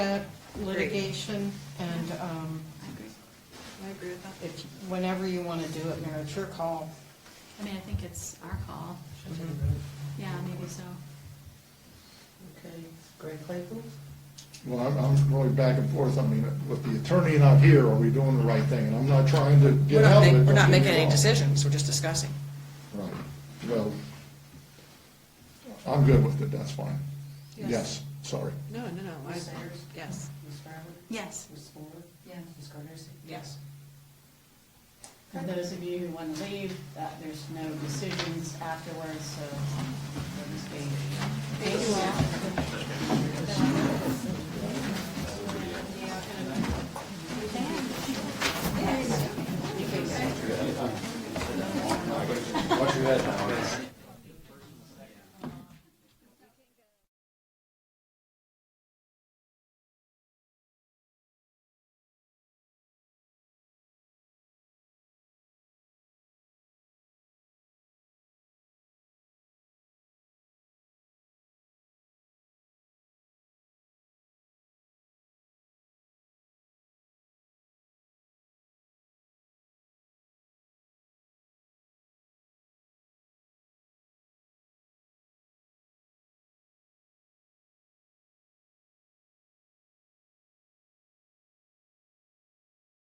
that litigation, and um, I agree. I agree with that. if, whenever you want to do it, Mayor, it's your call. I mean, I think it's our call. Mm-hmm. Yeah, maybe so. Okay, Greg Claypool? Well, I'm, I'm really back and forth, I mean, with the attorney not here, are we doing the right thing? And I'm not trying to We're get not, out of make- it. we're not don't get me making any wrong. decisions, we're just discussing. Right, well, I'm good with it, that's fine. Yes. Yes, sorry. No, no, no, Ms. Sayers? yes. Ms. Fryland? Yes. Ms. Fuller? Yeah. Ms. Cardosi? Yes. For those of you who want to leave, uh, there's no decisions afterwards, so we'll just be. Thank you all.